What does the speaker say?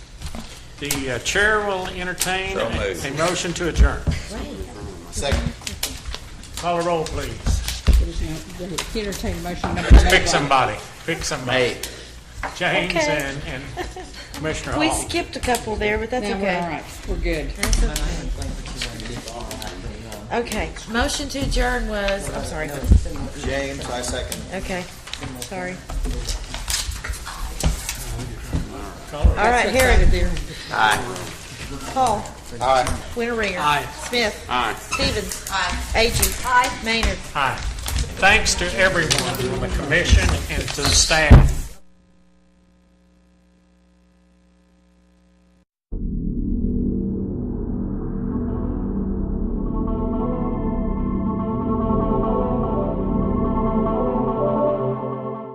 The uh, chair will entertain So a moved. a motion to adjourn. Second. Call a roll, please. Entertain motion number Pick made by somebody, pick somebody. James Okay. and and Commissioner We Hall. skipped a couple there, but that's Now, we're all okay. right, we're good. Okay, motion to adjourn was, I'm sorry, James, I second. okay, sorry. All right, Herod, There. Paul, Aye. Winteringer. Smith. Stevens. Aye. Agee. Maynard. Hi. Thanks to everyone, from the commission and to the staff.